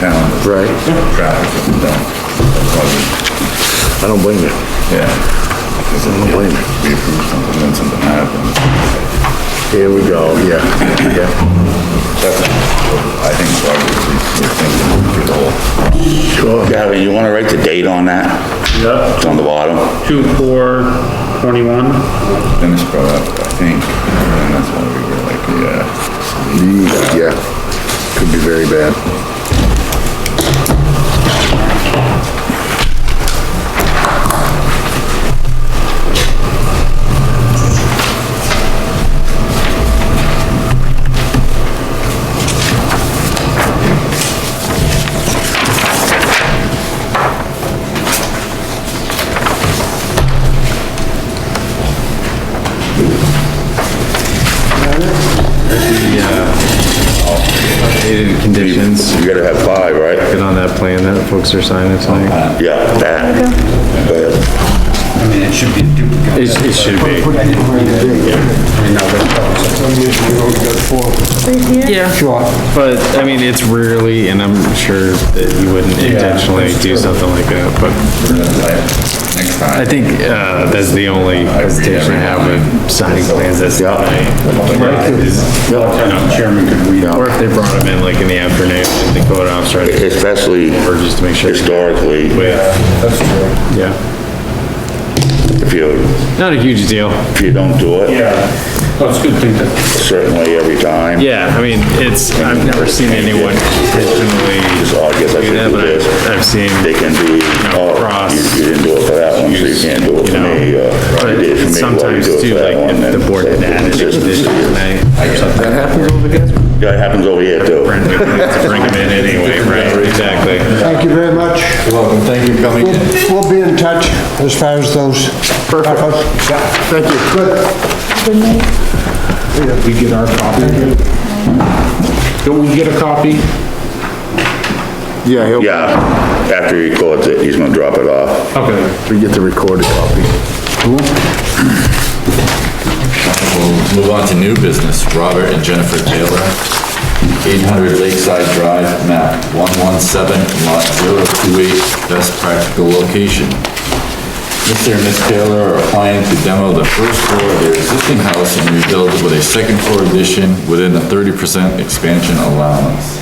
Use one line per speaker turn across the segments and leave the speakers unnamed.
town.
Right.
Traffic up and down. That's why we-
I don't blame you.
Yeah. Because then we
blame you.
we approve something, then something happens.
Here we go, yeah, yeah,
That's, I think, why we- we- we're thinking we could all.
sure.
Gavin, you wanna write the date on that?
Yep,
It's on the bottom.
two, four, twenty-one.
Then it's brought up, I think, and that's why we were like, yeah.
Yeah, could be very bad.
Needed uh, conditions,
You gotta have five, right?
get on that plan that folks are signing tonight.
Yeah, that. Go ahead.
I mean, it should be a duplicate.
It, it should be.
I didn't bring it in. I mean, I've got-
Sure. But, I mean, it's rarely, and I'm sure that you wouldn't intentionally do something like that, but
Next time.
I think, uh, that's the only hesitation I have with signing plans that's tonight. Is-
Chairman, could we,
Or if they brought them in like in the afternoon, and the code officer, or
Especially
just to make sure.
historically,
Yeah. Yeah,
if you,
not a huge deal.
if you don't do it,
Yeah, well, it's a good thing that,
certainly every time.
Yeah, I mean, it's, I've never seen anyone intentionally
So "Oh, I guess I
do
should
that,
do
but
this.
I've- I've seen.
They can be,
No,
oh,
cross,
you- you didn't do it for that one, so you
use,
can't do it
you
for
know,
me. uh, You did it for
But
me, why you
sometimes
do it
too,
for that
like
one?
if the
and
board had
so
added a
it's
condition
just-
tonight or something,
That happens over there?
Yeah, it happens over here too.
we're gonna bring them in anyway, right? Exactly.
Thank you very much.
Welcome, thank you for coming.
We'll we'll be in touch as far as those. Perfect. Thank you. Good.
We get our copy? Don't we get a copy?
Yeah, he'll,
Yeah, after he records it, he's gonna drop it off.
Okay.
we get the recorded copy.
We'll move on to new business, Robert and Jennifer Taylor, 800 Lakeside Drive, map 117, lot 028, best practical location. Mr. and Ms. Taylor are applying to demo the first floor of their existing house and rebuild it with a second floor addition within the 30% expansion allowance.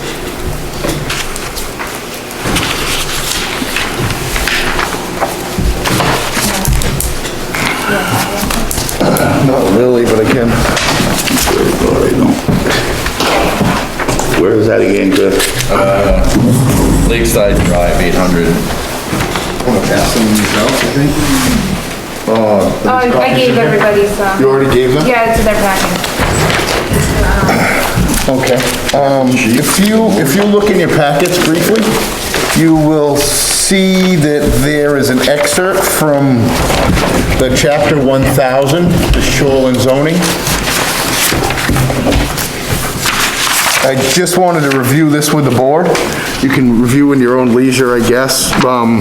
Not really, but I can.
Where is that again, Chris?
Lakeside Drive, 800
Want to pass them yourself, I think? Oh,
Oh, I I gave everybody some.
you already gave them?
Yeah, it's in their packet.
Okay. Um, if you, if you look in your packets briefly, you will see that there is an excerpt from the chapter 1000, the shoreline zoning. I just wanted to review this with the board.
You can review in your own leisure, I guess, um,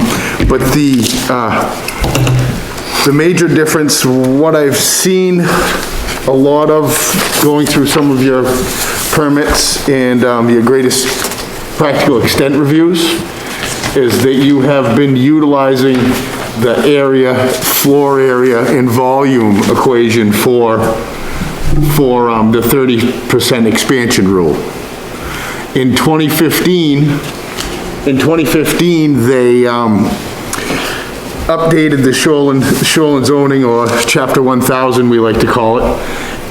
but the, uh, the major difference, what I've seen a lot of going through some of your permits and um, your greatest practical extent reviews, is that you have been utilizing the area, floor area and volume equation for, for um, the 30% expansion rule. In 2015, in 2015, they, um, updated the shoreline, shoreline zoning, or chapter 1000, we like to call it,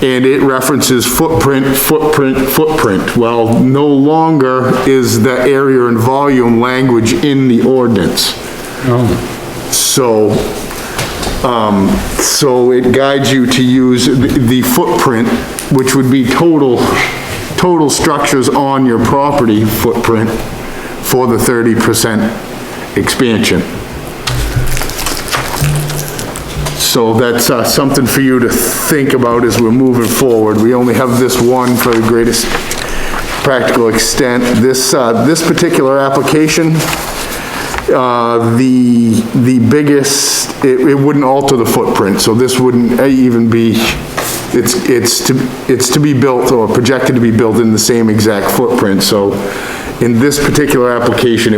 and it references footprint, footprint, footprint. Well, no longer is the area and volume language in the ordinance. So, um, so it guides you to use the the footprint, which would be total, total structures on your property footprint for the 30% expansion. So that's uh, something for you to think about as we're moving forward. We only have this one for the greatest practical extent. This, uh, this particular application, uh, the, the biggest, it, it wouldn't alter the footprint, so this wouldn't uh, even be, it's, it's to, it's to be built or projected to be built in the same exact footprint, so In this particular application,